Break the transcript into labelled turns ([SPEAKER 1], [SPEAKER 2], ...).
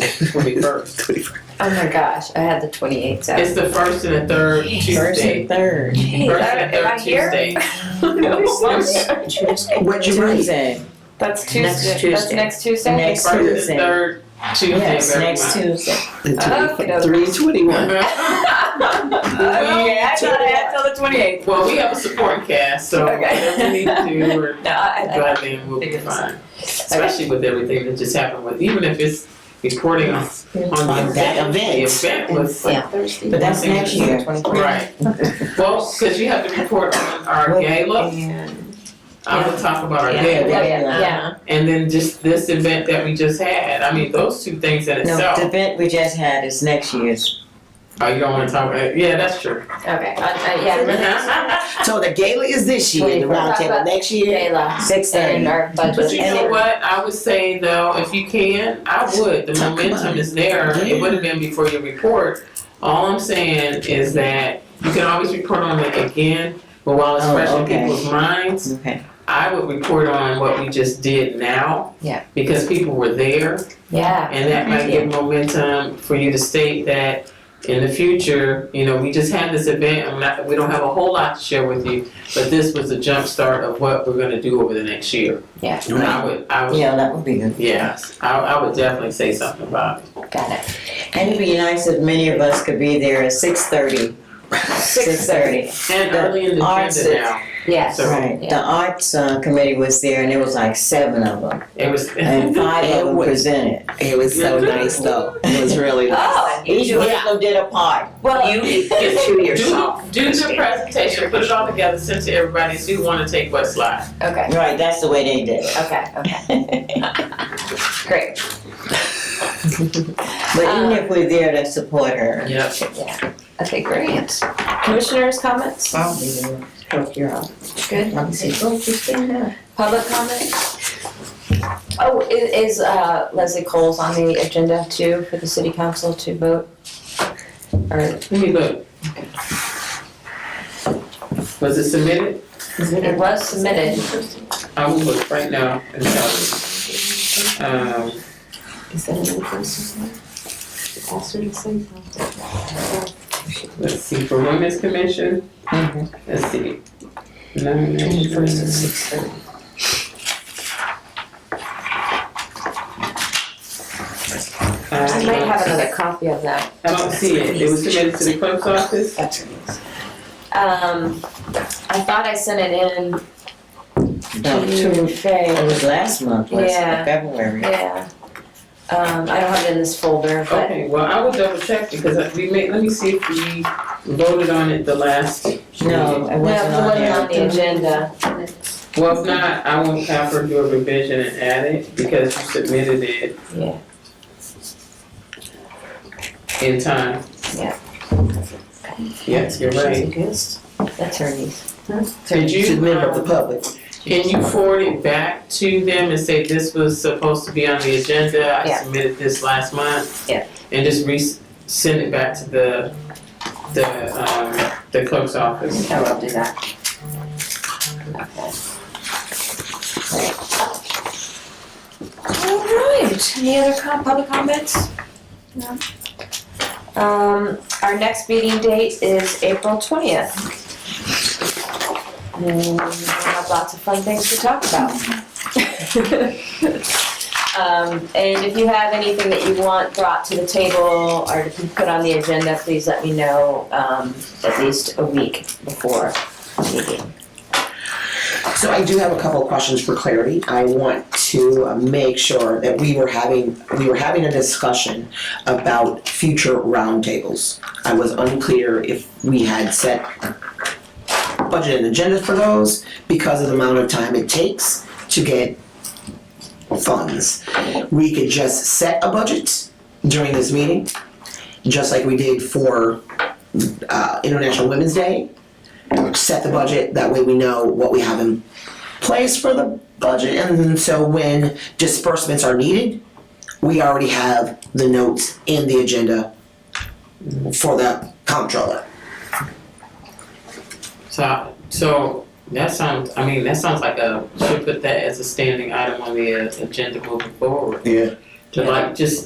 [SPEAKER 1] Twenty-first.
[SPEAKER 2] Oh my gosh, I had the 28th out.
[SPEAKER 1] It's the first and the third
[SPEAKER 3] First
[SPEAKER 1] Tuesday.
[SPEAKER 3] and third.
[SPEAKER 2] Hey,
[SPEAKER 1] First
[SPEAKER 2] that-
[SPEAKER 1] and
[SPEAKER 2] am I
[SPEAKER 1] third
[SPEAKER 2] here?
[SPEAKER 1] Tuesday.
[SPEAKER 4] What'd you write?
[SPEAKER 3] Tuesday.
[SPEAKER 2] That's Tuesday.
[SPEAKER 3] Next
[SPEAKER 2] That's
[SPEAKER 3] Tuesday.
[SPEAKER 2] next Tuesday?
[SPEAKER 3] Next-
[SPEAKER 1] First and the
[SPEAKER 3] Tuesday.
[SPEAKER 1] third Tuesday of
[SPEAKER 3] Yes,
[SPEAKER 1] every
[SPEAKER 3] next
[SPEAKER 1] month.
[SPEAKER 3] Tuesday.
[SPEAKER 2] Okey-doke.
[SPEAKER 4] Three twenty-one.
[SPEAKER 2] Oh, okay, I thought I had till the 28th.
[SPEAKER 1] Well, we have a supporting cast, so
[SPEAKER 2] Okay.
[SPEAKER 1] whatever we need to do, we're
[SPEAKER 2] No, I, I,
[SPEAKER 1] glad then we'll be
[SPEAKER 2] Figure this
[SPEAKER 1] fine. Especially with everything that just happened with, even if it's reporting on, on the
[SPEAKER 4] On that
[SPEAKER 1] event. The event
[SPEAKER 4] event.
[SPEAKER 1] was like
[SPEAKER 2] Yeah.
[SPEAKER 1] Thursday.
[SPEAKER 3] But that's next year.
[SPEAKER 1] Right. Well, because you have to report on our
[SPEAKER 3] Well,
[SPEAKER 1] gala.
[SPEAKER 3] and-
[SPEAKER 1] I'm gonna talk about our
[SPEAKER 3] Yeah.
[SPEAKER 1] gala.
[SPEAKER 2] oh. yeah,
[SPEAKER 3] Yeah.
[SPEAKER 2] yeah.
[SPEAKER 1] And then just this event that we just had, I mean, those two things in
[SPEAKER 3] No,
[SPEAKER 1] itself,
[SPEAKER 3] the event we just had is next year's.
[SPEAKER 1] oh, you don't wanna talk about, yeah, that's true.
[SPEAKER 2] Okay, I,
[SPEAKER 1] Uh-huh.
[SPEAKER 2] I, yeah.
[SPEAKER 4] So the gala is this year, the round table next year.
[SPEAKER 2] Gala.
[SPEAKER 3] Six
[SPEAKER 2] And
[SPEAKER 3] thirty.
[SPEAKER 2] our budget.
[SPEAKER 1] But you
[SPEAKER 3] And
[SPEAKER 1] know
[SPEAKER 3] it-
[SPEAKER 1] what, I would say though, if you can, I would, the
[SPEAKER 4] Oh, come
[SPEAKER 1] momentum
[SPEAKER 4] on.
[SPEAKER 1] is there,
[SPEAKER 4] Yeah.
[SPEAKER 1] it would have been before your report. All I'm saying is that you can always report on it again, but while it's
[SPEAKER 3] Oh,
[SPEAKER 1] fresh in
[SPEAKER 3] okay.
[SPEAKER 1] people's minds,
[SPEAKER 3] Okay.
[SPEAKER 1] I would report on what we just did now.
[SPEAKER 2] Yeah.
[SPEAKER 1] Because people were there,
[SPEAKER 2] Yeah.
[SPEAKER 1] And that might give momentum for you to state that in the future, you know, we just had this event, I'm not, we don't have a whole lot to share with you, but this was the jumpstart of what we're gonna do over the next year.
[SPEAKER 2] Yeah.
[SPEAKER 1] And I would, I would,
[SPEAKER 3] Yeah, that would be good.
[SPEAKER 1] yes, I, I would definitely say something about it.
[SPEAKER 2] Got it.
[SPEAKER 3] And it'd be nice if many of us could be there at six thirty. Six thirty.
[SPEAKER 1] And
[SPEAKER 3] The
[SPEAKER 1] early in the
[SPEAKER 3] arts
[SPEAKER 1] agenda now,
[SPEAKER 2] Yes.
[SPEAKER 1] So-
[SPEAKER 3] Right. The arts uh, committee was there and there was like seven of them.
[SPEAKER 1] it was.
[SPEAKER 3] And five of them presented.
[SPEAKER 4] It was so nice though. It was really nice.
[SPEAKER 2] Oh, you
[SPEAKER 3] Each
[SPEAKER 2] do
[SPEAKER 3] one
[SPEAKER 2] it.
[SPEAKER 3] of them did a part.
[SPEAKER 2] Well,
[SPEAKER 1] Just
[SPEAKER 4] to
[SPEAKER 1] Do, do the presentation, put it all together, send to everybody, see who wanna take what slide.
[SPEAKER 2] okay,
[SPEAKER 3] Right, that's the way they did it.
[SPEAKER 2] okay, okay. Great.
[SPEAKER 3] But
[SPEAKER 1] Uh.
[SPEAKER 3] even if we're there to support her.
[SPEAKER 1] Yep.
[SPEAKER 2] Okay, great. Commissioners' comments?
[SPEAKER 3] I'll be there. Help you out.
[SPEAKER 2] Good.
[SPEAKER 3] Let me see.
[SPEAKER 1] Oh,
[SPEAKER 2] Public comment? Oh, i- is uh, Leslie Coles on the agenda too for the city council to vote? Or
[SPEAKER 1] Let me look. Was it submitted?
[SPEAKER 2] it was submitted?
[SPEAKER 1] I will look right now and tell you. Um,
[SPEAKER 2] Is that another person?
[SPEAKER 1] let's see, for Women's Commission,
[SPEAKER 3] Mhm.
[SPEAKER 1] let's see. Nomination.
[SPEAKER 2] six thirty. I might
[SPEAKER 1] Uh,
[SPEAKER 2] have another copy of that.
[SPEAKER 1] I don't see it, it was submitted to the clerk's office?
[SPEAKER 2] Um, I thought I sent it in
[SPEAKER 3] No,
[SPEAKER 2] to
[SPEAKER 3] two- It
[SPEAKER 2] Faye,
[SPEAKER 3] was last month, was
[SPEAKER 2] Yeah.
[SPEAKER 3] February.
[SPEAKER 2] yeah. Um, I don't have it in this folder, but,
[SPEAKER 1] Okay, well, I will double check because we may, let me see if we voted on it the last.
[SPEAKER 3] No, it
[SPEAKER 2] no, it
[SPEAKER 3] wasn't on
[SPEAKER 2] wasn't on the
[SPEAKER 3] there.
[SPEAKER 2] agenda.
[SPEAKER 1] Well, if not, I will have her do a revision and add it because you submitted it.
[SPEAKER 2] Yeah.
[SPEAKER 1] In time.
[SPEAKER 2] Yeah.
[SPEAKER 1] Yes, you're right.
[SPEAKER 2] That's her niece.
[SPEAKER 1] Did you?
[SPEAKER 4] To member of the
[SPEAKER 1] um,
[SPEAKER 4] public.
[SPEAKER 1] Can you forward it back to them and say this was supposed to be on the agenda? I
[SPEAKER 2] Yeah.
[SPEAKER 1] submitted this last month.
[SPEAKER 2] Yeah.
[SPEAKER 1] And just re, send it back to the, the, um, the clerk's office.
[SPEAKER 2] I will do that. All right, any other com, public comments? No. Um, our next meeting date is April twentieth. And we have lots of fun things to talk about. Um, and if you have anything that you want brought to the table or to be put on the agenda, please let me know, um, at least a week before the meeting.
[SPEAKER 4] So I do have a couple of questions for clarity. I want to uh, make sure that we were having, we were having a discussion about future roundtables. I was unclear if we had set budget and agenda for those because of the amount of time it takes to get funds. We could just set a budget during this meeting, just like we did for uh, International Women's Day. Set the budget, that way we know what we have in place for the budget, and so when disbursements are needed, we already have the notes in the agenda for the comptroller.
[SPEAKER 1] So, so that sounds, I mean, that sounds like a, should put that as a standing item on the uh, agenda moving forward.
[SPEAKER 4] Yeah.
[SPEAKER 1] to like just